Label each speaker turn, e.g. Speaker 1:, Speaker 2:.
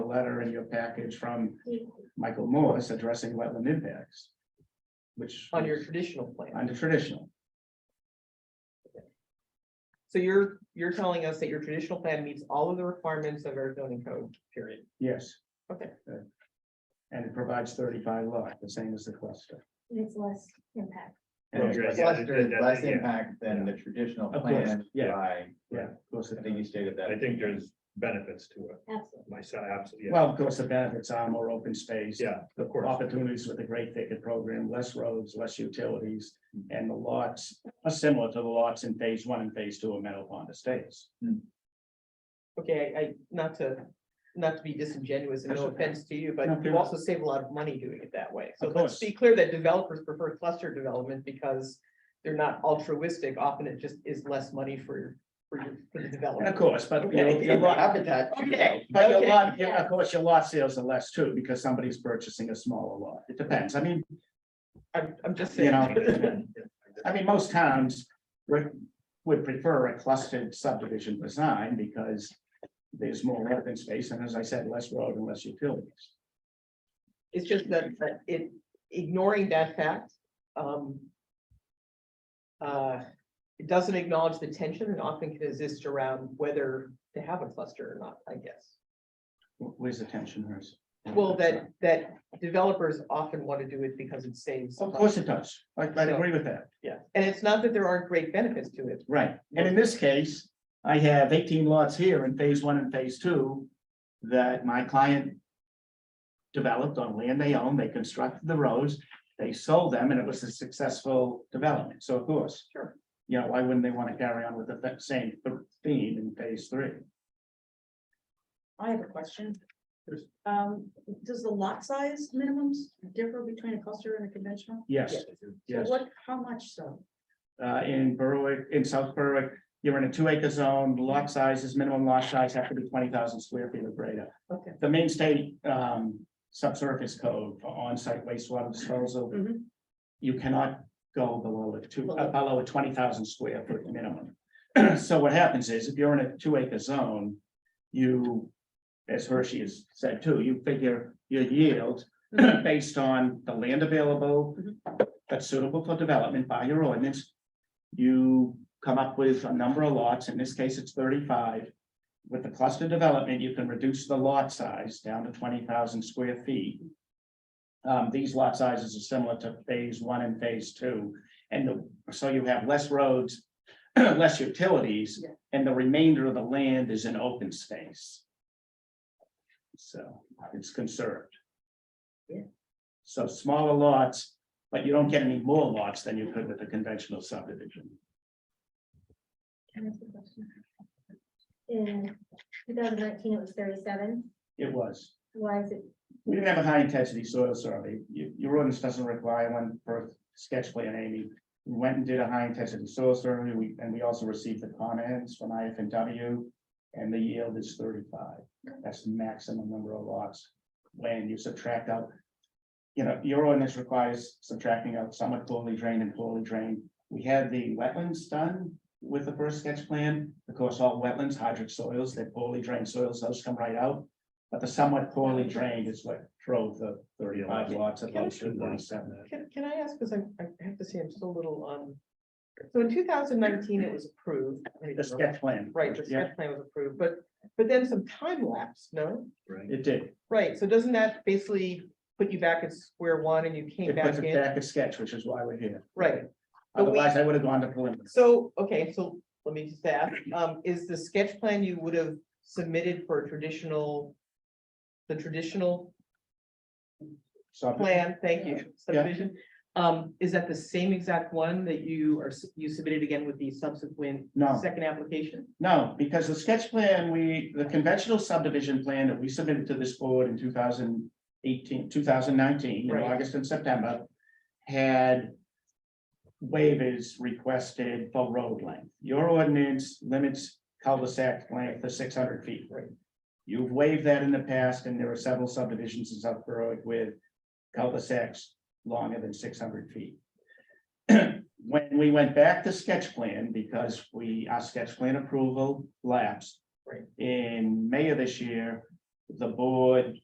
Speaker 1: letter in your package from Michael Morris addressing wetland impacts. Which.
Speaker 2: on your traditional plan.
Speaker 1: On the traditional,
Speaker 2: So you're, you're telling us that your traditional plan meets all of the requirements of our zoning code, period.
Speaker 1: yes, Uh,
Speaker 2: Okay,
Speaker 1: and it provides thirty-five lot, the same as the cluster.
Speaker 3: It's less impact.
Speaker 1: And it's-
Speaker 4: Right, yeah,
Speaker 5: Cluster is
Speaker 4: that-
Speaker 5: less
Speaker 4: yeah.
Speaker 5: impact than the traditional
Speaker 1: Of course,
Speaker 5: plan
Speaker 1: yeah.
Speaker 5: by,
Speaker 1: Yeah, of course,
Speaker 5: I
Speaker 1: it
Speaker 5: think you
Speaker 1: does.
Speaker 5: stated that.
Speaker 4: I think there's benefits to it,
Speaker 3: Absolutely.
Speaker 4: myself, absolutely. yeah.
Speaker 1: well, of course, the benefits are more open space.
Speaker 4: Yeah,
Speaker 1: the
Speaker 4: of course.
Speaker 1: opportunities with the Great Thicket Program, less roads, less utilities, and the lots are similar to the lots in phase one and phase two of Meadow Pond Estates.
Speaker 2: okay, I, I- not to, not to be disingenuous and no
Speaker 1: That's okay.
Speaker 2: offense to you,
Speaker 1: No,
Speaker 2: but you
Speaker 1: you're-
Speaker 2: also save a lot of money doing it that way. So
Speaker 1: Of
Speaker 2: let's
Speaker 1: course.
Speaker 2: be clear that developers prefer cluster development because they're not altruistic. Often it just is less money for, for your, for
Speaker 1: And
Speaker 2: the
Speaker 1: of
Speaker 2: developer.
Speaker 1: course, but you know, your lot,
Speaker 5: Habitat.
Speaker 2: Okay,
Speaker 1: but your
Speaker 2: okay.
Speaker 1: lot, yeah, of course, your lot sales are less too, because somebody's purchasing a smaller lot. It depends. I mean,
Speaker 2: I'm, I'm just
Speaker 1: you
Speaker 2: saying.
Speaker 1: know. I mean, most towns would, would prefer a clustered subdivision design because there's more open space and as I said, less road and less utilities.
Speaker 2: It's just that, that it, ignoring that fact, um. Uh, it doesn't acknowledge the tension and often can exist around whether to have a cluster or not, I guess.
Speaker 1: Wh- Where's the tension, Hers?
Speaker 2: Well, that, that developers often want to do it because it saves.
Speaker 1: Of course it does. I, I agree with that.
Speaker 2: Yeah, and it's not that there aren't great benefits to it.
Speaker 1: Right, and in this case, I have eighteen lots here in phase one and phase two that my client. Developed on land they own, they constructed the roads, they sold them, and it was a successful development, so of course.
Speaker 2: Sure.
Speaker 1: You know, why wouldn't they want to carry on with the th- same theme in phase three?
Speaker 6: I have a question.
Speaker 1: Yes.
Speaker 6: Um, does the lot size minimums differ between a cluster and a conventional?
Speaker 1: Yes,
Speaker 6: So
Speaker 1: yes,
Speaker 6: What, how much so?
Speaker 1: uh, in Berwick, in South Berwick, you're in a two acre zone, lot sizes, minimum lot size have to be twenty thousand square feet or greater.
Speaker 2: Okay.
Speaker 1: the main state um subsurface code for on-site wastewater disposal.
Speaker 6: Mhm.
Speaker 1: You cannot go below a two,
Speaker 2: Mm-hmm. Below.
Speaker 1: below a twenty thousand square foot minimum. So what happens is if you're in a two acre zone, you, as Hershey has said too, you figure your yield
Speaker 2: Mm-hmm.
Speaker 1: based on the land available that's suitable for development by your ordinance. You come up with a number of lots, in this case, it's thirty-five. With the cluster development, you can reduce the lot size down to twenty thousand square feet. Um, these lot sizes are similar to phase one and phase two, and the- so you have less roads, less utilities,
Speaker 6: Yeah.
Speaker 1: and the remainder of the land is in open space. So it's conserved.
Speaker 6: Yeah.
Speaker 1: So smaller lots, but you don't get any more lots than you could with a conventional subdivision.
Speaker 3: Can I ask a question? In two thousand nineteen, it was thirty-seven.
Speaker 1: It was.
Speaker 3: Why is it,
Speaker 1: We didn't have a high intensity soil survey. Your, your ordinance doesn't require one for sketch plan, Amy. We Went and did a high intensity soil survey, we, and we also received the comments from IFNW. And the yield is thirty-five. That's the maximum number of lots. When you subtract out. You know, your ordinance requires subtracting out somewhat poorly drained and poorly drained. We had the wetlands done with the first sketch plan. Of course, all wetlands, hydric soils, they're poorly drained soils, those come right out. But the somewhat poorly drained is what drove the thirty-five lots of those two thirty-seven.
Speaker 2: Can, can I ask, because I, I have to say, I'm still a little, um, so in two thousand nineteen, it was approved.
Speaker 1: The sketch plan.
Speaker 2: Right, the
Speaker 1: Yeah,
Speaker 2: sketch plan was approved, but, but then some time lapse, no?
Speaker 4: Right.
Speaker 1: it did.
Speaker 2: Right, so doesn't that basically put you back at square one and you came
Speaker 1: It puts
Speaker 2: back
Speaker 1: it
Speaker 2: in?
Speaker 1: back a sketch, which is why we're here.
Speaker 2: Right, But we-
Speaker 1: Otherwise, I would have gone to preliminary.
Speaker 2: so, okay, so let me just ask, um, is the sketch plan you would have submitted for a traditional, the traditional
Speaker 1: So
Speaker 2: plan, thank you,
Speaker 1: Yeah.
Speaker 2: subdivision. Um, is that the same exact one that you are, s- you submitted again with the subsequent
Speaker 1: No.
Speaker 2: second application?
Speaker 1: No, because the sketch plan, we, the conventional subdivision plan that we submitted to this board in 2018, 2019, in
Speaker 2: Right.
Speaker 1: August and September. Had. Waivers requested for road length. Your ordinance limits cul-de-sac length to six hundred feet.
Speaker 2: Right.
Speaker 1: You've waived that in the past, and there are several subdivisions in South Berwick with cul-de-sacs longer than six hundred feet. When we went back to sketch plan, because we, our sketch plan approval lapsed.
Speaker 2: Right.
Speaker 1: In May of this year, the board